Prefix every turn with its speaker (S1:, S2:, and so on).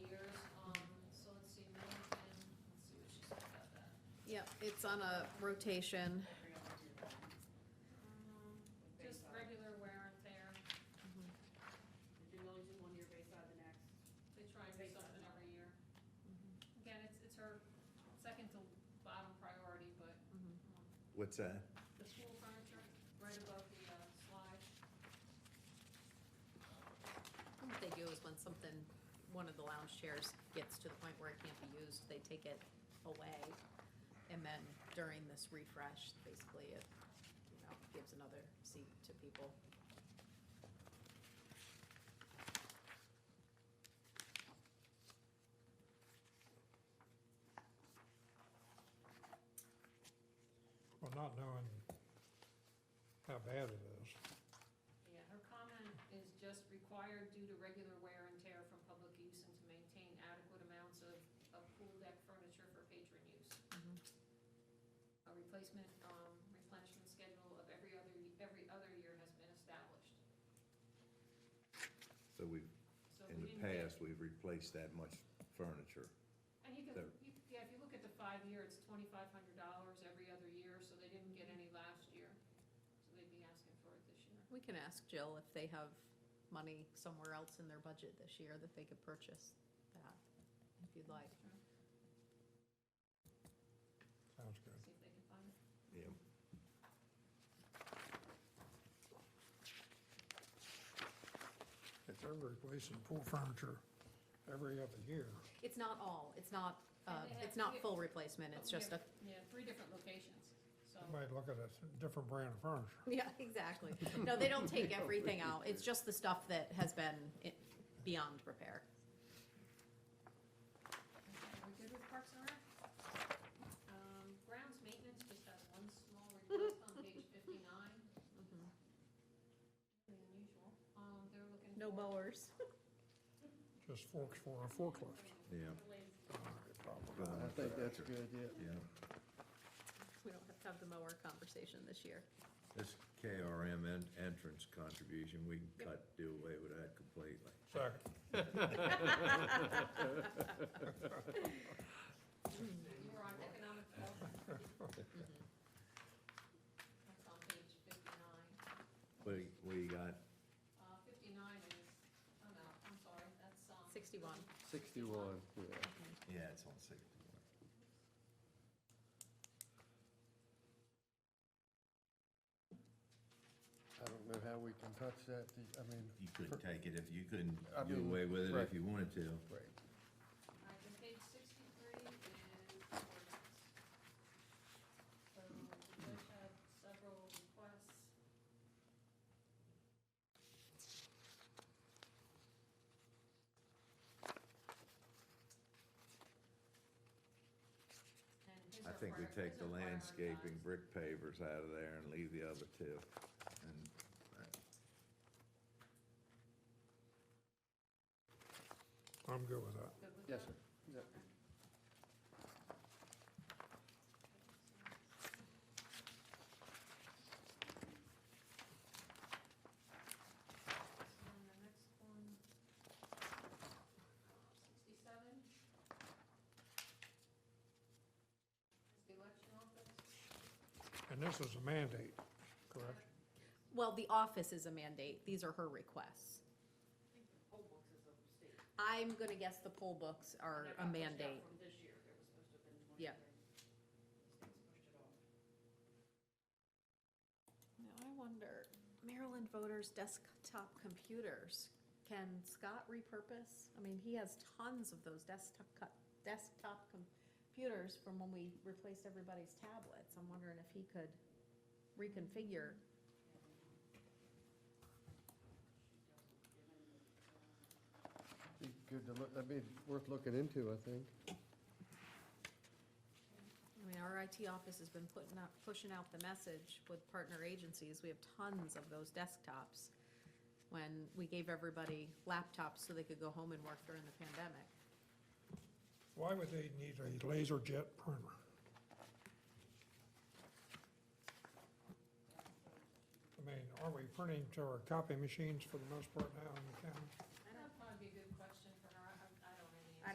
S1: um,
S2: It's on a rotation.
S1: Um, Just regular wear and tear.
S3: If you only do one year based on the next.
S1: They try and do something every year. Again, it's, it's her second to bottom priority, but um,
S4: What's that?
S1: the school furniture, right above the uh, slide.
S2: What they do is when something, one of the lounge chairs gets to the point where it can't be used, they take it away. And then during this refresh, basically it, you know, gives another seat to people.
S5: Well, not knowing how bad it is.
S1: Yeah, her comment is just required due to regular wear and tear from public use and to maintain adequate amounts of, of pool deck furniture for patron use. A replacement, um, replenishment schedule of every other, every other year has been established.
S4: So we've,
S1: So
S4: in
S1: we didn't
S4: the
S1: get-
S4: past, we've replaced that much furniture.
S1: And you can,
S4: There.
S1: you- yeah, if you look at the five-year, it's twenty-five hundred dollars every other year, so they didn't get any last year. So they'd be asking for it this year.
S2: We can ask Jill if they have money somewhere else in their budget this year that they could purchase that, if you'd like.
S5: Sounds good.
S1: See if they can find it.
S4: Yeah.
S5: If they're replacing pool furniture every other year,
S2: It's not all, it's not, uh,
S1: And they have-
S2: it's not full replacement, it's
S1: But we
S2: just a,
S1: have- Yeah, three different locations, so.
S5: you might look at a different brand of furniture.
S2: yeah, exactly. No, they don't take everything out, it's just the stuff that has been i- beyond repair.
S1: Okay, Are we good with Parks and Rec? Um, grounds maintenance just has one small request on page fifty-nine.
S2: Mm-hmm.
S1: Pretty unusual. Um, they're looking.
S2: No
S1: for-
S2: mowers.
S5: Just forks for a forklift.
S4: Yeah.
S6: I think that's a good idea.
S4: Yeah.
S2: We don't have to have the mower conversation this year.
S4: This KRM en- entrance contribution, we can cut, do away with that completely.
S5: Second.
S1: You were on economic development. That's on page fifty-nine.
S4: What, do you- what do you got?
S1: Uh, fifty-nine is, oh no, I'm sorry, that's, um.
S2: 61.
S6: Sixty-one, yeah.
S4: Yeah, it's on sixty-one.
S6: I don't know how we can touch that, the- I mean.
S4: You couldn't take it if, you couldn't
S6: I
S4: do
S6: mean,
S4: away with it if
S6: right.
S4: you wanted to.
S6: Right.
S1: All right, then Uh, page sixty-three is ordinance. So the judge had several requests. And his
S4: I think we
S1: require-
S4: take
S1: his
S4: the
S1: are prioritized.
S4: landscaping, brick pavers out of there and leave the other two. And uh,
S5: I'm good with that.
S1: Good with
S6: Yes,
S1: that?
S6: sir. Yep.
S1: And the next one, sixty-seven. Is the election office,
S5: And this is a mandate, correct?
S2: Well, the office is a mandate, these are her requests.
S3: I think the whole books is of the state.
S2: I'm gonna guess the poll books
S3: And
S2: are
S3: that
S2: a
S3: got pushed out
S2: mandate.
S3: From this year, it was supposed to have been twenty.
S2: Yeah.
S3: States pushed it off.
S2: Now, I wonder, Maryland voters' desktop computers, can Scott repurpose? I mean, he has tons of those desktop, co- desktop computers from when we replaced everybody's tablets. I'm wondering if he could reconfigure.
S3: She doesn't give any, uh,
S6: Be Good to look, that'd be worth looking into, I think.
S2: I mean, our IT office has been putting out, pushing out the message with partner agencies. We have tons of those desktops. When we gave everybody laptops so they could go home and work during the pandemic.
S5: Why would they need a laser jet printer? I mean, are we printing to our copy machines for the most part now in the county?